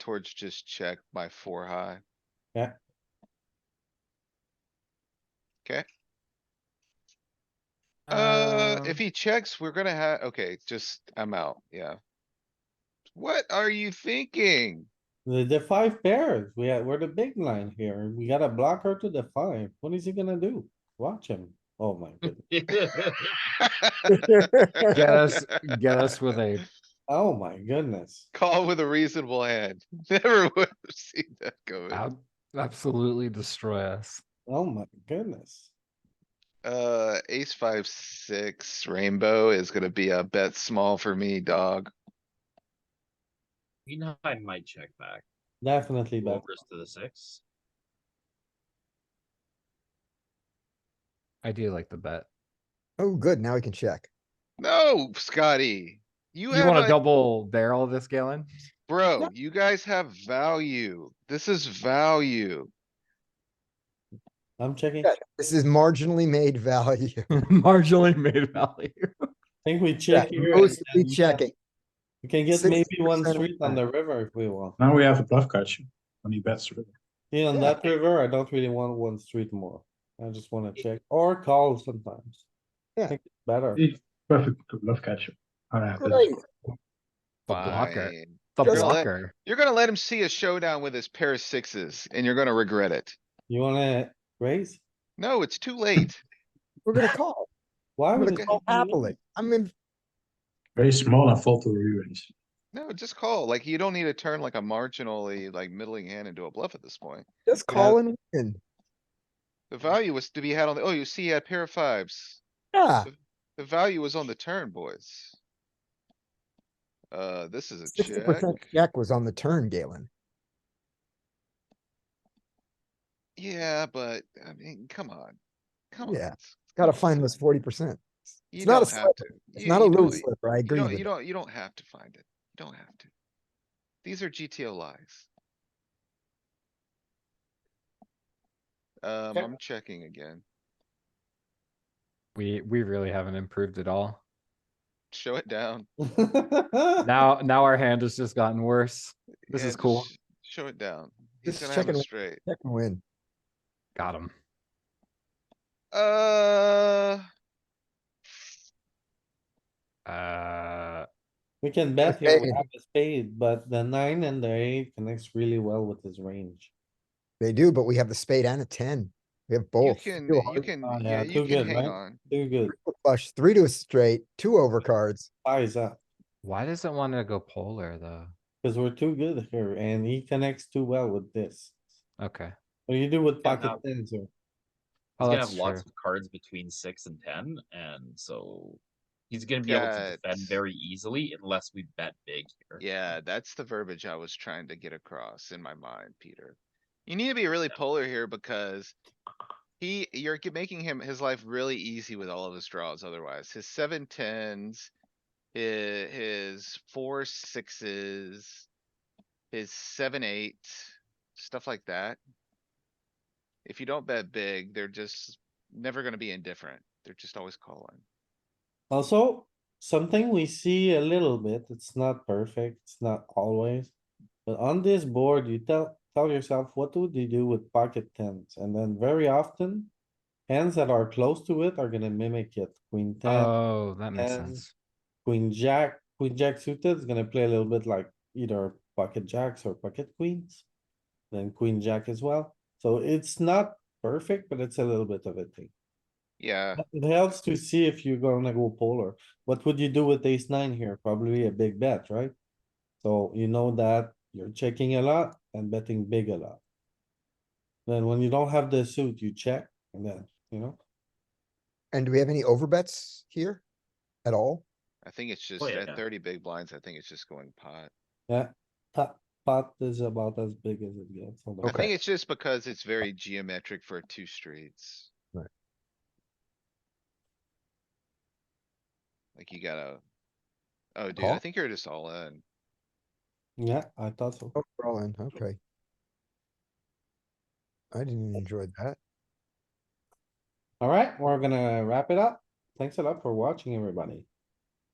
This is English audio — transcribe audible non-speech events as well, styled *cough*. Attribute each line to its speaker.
Speaker 1: towards just check by four high.
Speaker 2: Yeah.
Speaker 1: Okay, uh, if he checks, we're gonna have, okay, just, I'm out, yeah. What are you thinking? *laughs*
Speaker 2: The, the five pairs, we are, we're the big line here. We got a blocker to the five. What is he gonna do? Watch him. Oh my goodness.
Speaker 3: *laughs*
Speaker 1: *laughs*
Speaker 3: Get us, get us with a,
Speaker 2: Oh my goodness.
Speaker 1: Call with a reasonable hand. *laughs* Never would have seen that going.
Speaker 3: ab- absolutely destroy us.
Speaker 2: Oh my goodness.
Speaker 1: Uh, ace five, six rainbow is gonna be a bet small for me, dog.
Speaker 4: Queen high might check back,
Speaker 2: Definitely bet.
Speaker 4: overs to the six.
Speaker 3: I do like the bet.
Speaker 5: Oh, good. Now we can check.
Speaker 1: No, Scotty. You
Speaker 3: You
Speaker 1: have
Speaker 3: wanna
Speaker 1: a,
Speaker 3: double barrel this, Galen? *laughs*
Speaker 1: bro, you guys have value. This is value.
Speaker 2: I'm checking.
Speaker 5: Yeah. This is marginally
Speaker 1: *laughs*
Speaker 5: made value.
Speaker 3: Marginally made value.
Speaker 2: Think we
Speaker 5: Yeah,
Speaker 2: check here. and
Speaker 5: Mostly
Speaker 2: then
Speaker 5: checking.
Speaker 2: We can get maybe one
Speaker 5: 60% of
Speaker 2: street on
Speaker 5: the
Speaker 2: the river if we want.
Speaker 6: Now we have a bluff catch when he bets. with it.
Speaker 2: Yeah, on
Speaker 5: Uh, Yeah.
Speaker 2: that river, I don't really want one street more. I just wanna check or call sometimes. I
Speaker 5: Yeah.
Speaker 2: think it's Better.
Speaker 6: It's perfect to bluff catch. I have that.
Speaker 5: Great.
Speaker 3: The blocker,
Speaker 1: Fine.
Speaker 3: the
Speaker 5: Just-
Speaker 3: blocker.
Speaker 1: You're gonna let him see a showdown with his pair of sixes and you're gonna regret it.
Speaker 2: You wanna raise?
Speaker 1: No, it's too late.
Speaker 5: We're *laughs* gonna call.
Speaker 2: Why
Speaker 5: I'm
Speaker 2: would
Speaker 5: gonna
Speaker 2: it?
Speaker 5: call happily. I mean,
Speaker 6: Very small and fall to the re-raise.
Speaker 1: No, just call. Like, you don't need to turn like a marginally, like middling hand into a bluff at this point.
Speaker 5: just
Speaker 2: Yeah.
Speaker 5: call and win.
Speaker 1: The value was to be had on the, oh, you see, he had a pair of fives.
Speaker 5: Yeah,
Speaker 1: The value was on the turn, boys. Uh, this is a
Speaker 5: sixty percent
Speaker 1: check.
Speaker 5: check was on the turn, Galen.
Speaker 1: Yeah, but I mean, come on. Come on.
Speaker 5: Yeah,
Speaker 1: it's-
Speaker 5: Gotta find those forty percent.
Speaker 1: You
Speaker 5: it's not a
Speaker 1: don't have to.
Speaker 5: It's
Speaker 1: You-
Speaker 5: not a
Speaker 1: you don't-
Speaker 5: little slipper. I
Speaker 1: You
Speaker 5: agree
Speaker 1: don't,
Speaker 5: with
Speaker 1: you
Speaker 5: you.
Speaker 1: don't, you don't have to find it. You don't have to. These are GTO lies. Um,
Speaker 2: Check.
Speaker 1: I'm checking again.
Speaker 3: We, we really haven't improved
Speaker 1: *laughs*
Speaker 3: at all.
Speaker 1: Show it down.
Speaker 2: *laughs*
Speaker 3: Now, now our hand has just gotten worse. This
Speaker 1: Yeah,
Speaker 3: is cool.
Speaker 1: just Show it down. He's
Speaker 5: Just
Speaker 1: gonna have a
Speaker 5: checking.
Speaker 1: straight.
Speaker 5: Check and win.
Speaker 3: Got him.
Speaker 1: Uh,
Speaker 3: Uh,
Speaker 2: We can bet here, we
Speaker 5: Okay.
Speaker 2: have a spade, but the nine and the eight connects really well with his range.
Speaker 5: They do, but we have the spade and a ten. We have
Speaker 1: you
Speaker 5: both.
Speaker 1: can,
Speaker 5: Two
Speaker 1: you
Speaker 5: hearts,
Speaker 1: can,
Speaker 2: on,
Speaker 1: yeah,
Speaker 2: uh,
Speaker 1: you
Speaker 2: too
Speaker 1: can
Speaker 2: good,
Speaker 1: hang
Speaker 2: right?
Speaker 1: on.
Speaker 2: Too good,
Speaker 5: triple Flush, three to a straight, two overcards.
Speaker 2: eyes up,
Speaker 3: why does it wanna go polar though?
Speaker 2: cuz we're too good here and he connects too well with this.
Speaker 3: Okay.
Speaker 2: What do you do with
Speaker 4: Yeah,
Speaker 2: pocket
Speaker 4: no.
Speaker 2: tens here?
Speaker 4: He's
Speaker 3: Oh,
Speaker 4: gonna have
Speaker 3: that's true.
Speaker 4: lots of cards between six and ten, and so. He's gonna be able to
Speaker 1: That's-
Speaker 4: defend very easily unless we bet big here.
Speaker 1: Yeah, that's the verbiage I was trying to get across in my mind, Peter. You need to be really polar here because he, you're g- making him, his life really easy with all of his draws otherwise. His seven tens, hi- his four sixes, his seven eight, stuff like that. If you don't bet big, they're just never gonna be indifferent. They're just always calling.
Speaker 2: Also, something we see a little bit, it's not perfect, it's not always. But on this board, you tell, tell yourself, what would you do with pocket tens? And then very often, hands that are close to it are gonna mimic it, queen ten.
Speaker 3: Oh, that makes
Speaker 2: and-
Speaker 3: sense.
Speaker 2: Queen jack, queen jack suited is gonna play a little bit like either pocket jacks or pocket queens. Then queen jack as well. So it's not perfect, but it's a little bit of a thing.
Speaker 1: Yeah,
Speaker 2: But It helps to see if you're gonna go polar. What would you do with ace nine here? Probably a big bet, right? So you know that you're checking a lot and betting big a lot. Then when you don't have the suit, you check and then, you know,
Speaker 5: And do we have any overbets here at all?
Speaker 1: I think it's just
Speaker 4: Oh, yeah,
Speaker 1: at
Speaker 4: yeah.
Speaker 1: thirty big blinds, I think it's just going pot.
Speaker 2: yeah, pot, pot is about as big as it gets. on the
Speaker 1: I
Speaker 2: board.
Speaker 1: think it's just because it's very geometric for two streets.
Speaker 5: Right.
Speaker 1: Like you gotta. Oh, dude, I
Speaker 5: Call?
Speaker 1: think you're just all in.
Speaker 2: Yeah, I thought so.
Speaker 5: Oh, we're all in. Okay. I didn't even enjoy that.
Speaker 2: Alright, we're gonna wrap it up. Thanks a lot for watching, everybody.